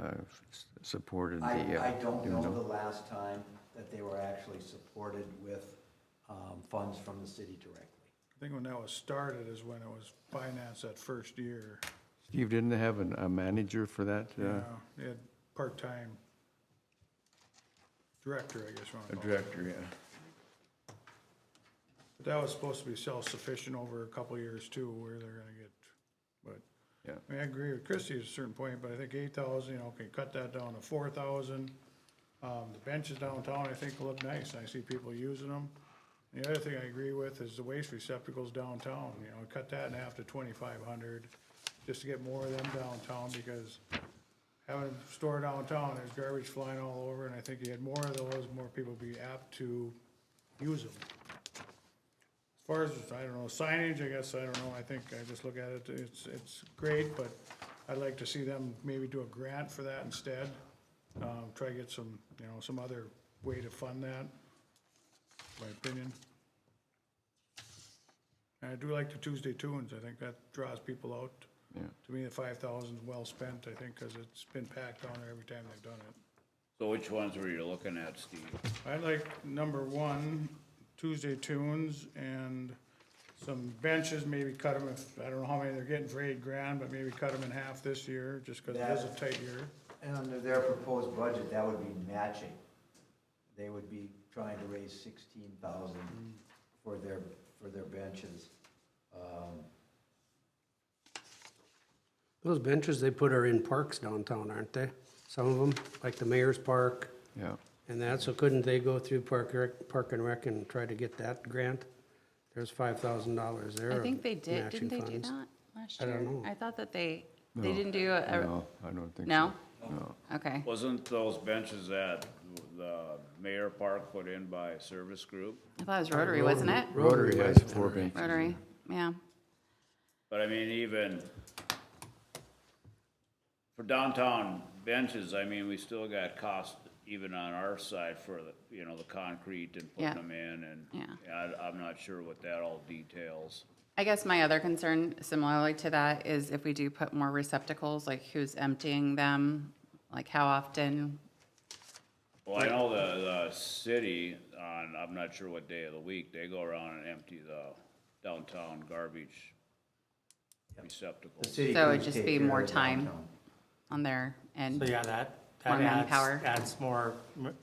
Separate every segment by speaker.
Speaker 1: uh, s- supported
Speaker 2: I,
Speaker 1: the. uh,
Speaker 2: I don't
Speaker 1: you
Speaker 2: know the last time that they were actually supported with um, funds from the city directly.
Speaker 3: I think when that was started is when it was financed that first year.
Speaker 1: Steve, didn't they have an- a manager for that? uh,
Speaker 3: Yeah. They had part-time director, I guess you want
Speaker 1: A
Speaker 3: to call it.
Speaker 1: director, yeah.
Speaker 3: But that was supposed to be self-sufficient over a couple of years too, where they're gonna get, but.
Speaker 1: Yeah.
Speaker 3: I mean, I agree with Christie at a certain point, but I think eight thousand, you know, can cut that down to four thousand. Um, the benches downtown, I think look nice, and I see people using them. And The other thing I agree with is the waste receptacles downtown, you know, cut that in half to twenty-five hundred, just to get more of them downtown, because having a store downtown, there's garbage flying all over, and I think you had more of those, more people would be apt to use them. As far as, I don't know, signage, I guess, I don't know, I think I just look at it, it's, it's great, but I'd like to see them maybe do a grant for that instead. Um, try to get some, you know, some other way to fund that, my opinion. And I do like the Tuesday tunes, I think that draws people out.
Speaker 1: Yeah.
Speaker 3: To me, the five thousand is well spent, I think, cause it's been packed down there every time they've done it.
Speaker 4: So which ones were you looking at, Steve?
Speaker 3: I like number one, Tuesday tunes and some benches, maybe cut them if, I don't know how many they're getting for eight grand, but maybe cut them in half this year, just because it is a tight year.
Speaker 2: And under their proposed budget, that would be matching. They would be trying to raise sixteen thousand for their, for their benches. Um,
Speaker 5: Those benches they put are in parks downtown, aren't they? Some of them, like the mayor's park
Speaker 1: Yeah.
Speaker 5: and that, so couldn't they go through Park Rec, Park and Rec and try to get that grant? There's five thousand dollars there.
Speaker 6: I
Speaker 5: of
Speaker 6: think they did,
Speaker 5: matching
Speaker 6: didn't they do
Speaker 5: funds.
Speaker 6: that last
Speaker 5: I
Speaker 6: year?
Speaker 5: don't know.
Speaker 6: I thought that they,
Speaker 1: No,
Speaker 6: they didn't do a- a,
Speaker 1: No, I don't think so.
Speaker 6: no? Okay,
Speaker 4: Wasn't those benches that the Mayor Park put in by Service Group?
Speaker 6: I thought it was Rotary, wasn't it?
Speaker 1: Rotary has four benches.
Speaker 6: Rotary, yeah.
Speaker 4: But I mean, even for downtown benches, I mean, we still got cost even on our side for the, you know, the concrete and
Speaker 6: Yeah.
Speaker 4: putting them in and.
Speaker 6: Yeah.
Speaker 4: I, I'm not sure what that all details.
Speaker 6: I guess my other concern similarly to that is if we do put more receptacles, like who's emptying them? Like how often?
Speaker 4: Well, I know the, the city on, I'm not sure what day of the week, they go around and empty the downtown garbage
Speaker 2: The
Speaker 4: receptacles.
Speaker 2: city
Speaker 6: So it'd
Speaker 2: crews
Speaker 6: just
Speaker 2: take
Speaker 6: be
Speaker 2: care of
Speaker 6: more
Speaker 2: the
Speaker 6: time.
Speaker 2: downtown.
Speaker 6: on their end?
Speaker 7: So yeah, that,
Speaker 6: More
Speaker 7: that adds,
Speaker 6: manpower.
Speaker 7: adds more m-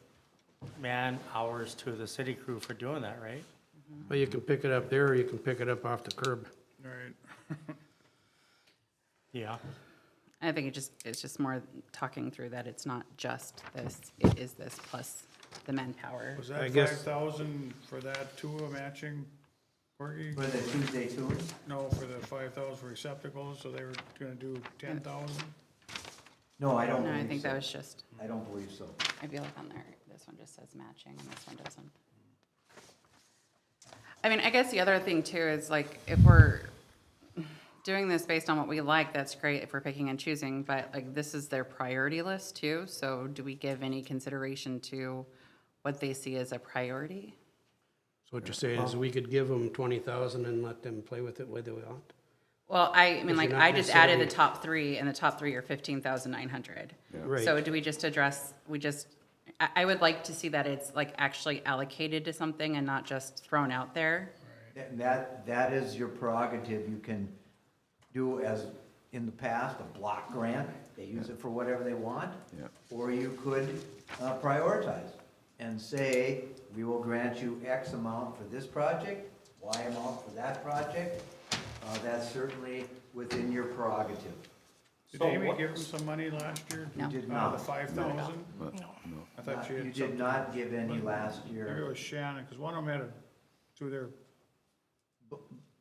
Speaker 7: man hours to the city crew for doing that, right?
Speaker 5: Well, you can pick it up there or you can pick it up off the curb.
Speaker 3: Right.
Speaker 7: Yeah.
Speaker 6: I think it just, it's just more talking through that it's not just this, it is this plus the manpower.
Speaker 3: Was
Speaker 5: I
Speaker 3: that
Speaker 5: guess-
Speaker 3: five thousand for that too, a matching, Corgi?
Speaker 2: For the Tuesday tours,
Speaker 3: No, for the five thousand receptacles, so they were gonna do ten thousand?
Speaker 2: no, I don't
Speaker 6: No, I
Speaker 2: believe
Speaker 6: think that
Speaker 2: so.
Speaker 6: was just,
Speaker 2: I don't believe so.
Speaker 6: I feel like on there, this one just says matching and this one doesn't. I mean, I guess the other thing too is like, if we're doing this based on what we like, that's great if we're picking and choosing, but like, this is their priority list too, so do we give any consideration to what they see as a priority?
Speaker 5: So what you're saying is we could give them twenty thousand and let them play with it whether they want.
Speaker 6: Well, I, I mean,
Speaker 5: you're
Speaker 6: like,
Speaker 5: not
Speaker 6: I just added the
Speaker 5: necessarily-
Speaker 6: top three, and the top three are fifteen thousand nine hundred.
Speaker 5: Right.
Speaker 6: So do we just address, we just, I, I would like to see that it's like actually allocated to something and not just thrown out there.
Speaker 2: And that, that is your prerogative, you can do as in the past, a block grant, they use it for whatever they want.
Speaker 1: Yeah.
Speaker 2: Or you could uh, prioritize and say, we will grant you X amount for this project, Y amount for that project. Uh, That's certainly within your prerogative.
Speaker 3: Did Amy give them some money last year?
Speaker 6: No.
Speaker 2: Did
Speaker 3: Out
Speaker 2: not.
Speaker 3: of the five thousand?
Speaker 1: But, no.
Speaker 3: I thought she had
Speaker 2: You
Speaker 3: some.
Speaker 2: did not give any last year.
Speaker 3: Maybe it was Shannon, because one of them had a, through their,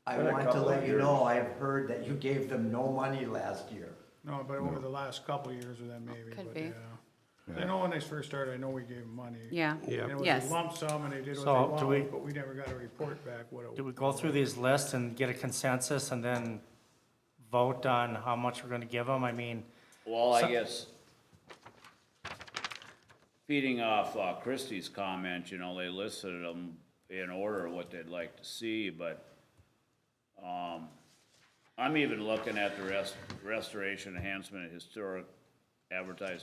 Speaker 2: I want to let you know, I've heard that you gave them no money last year.
Speaker 3: no, but over the last couple of years or then maybe,
Speaker 6: Could
Speaker 3: but
Speaker 6: be.
Speaker 3: yeah. I know when they first started, I know we gave them money.
Speaker 6: Yeah.
Speaker 5: Yeah.
Speaker 3: And it was a
Speaker 6: Yes.
Speaker 3: lump sum and they did what
Speaker 7: So, do
Speaker 3: they
Speaker 7: we-
Speaker 3: wanted, but we never got a report back what it
Speaker 7: Do
Speaker 3: was.
Speaker 7: we go through these lists and get a consensus and then vote on how much we're gonna give them? I mean,
Speaker 4: Well, I guess feeding off uh, Christie's comment, you know, they listed them in order what they'd like to see, but um, I'm even looking at the rest, restoration enhancement historic advertising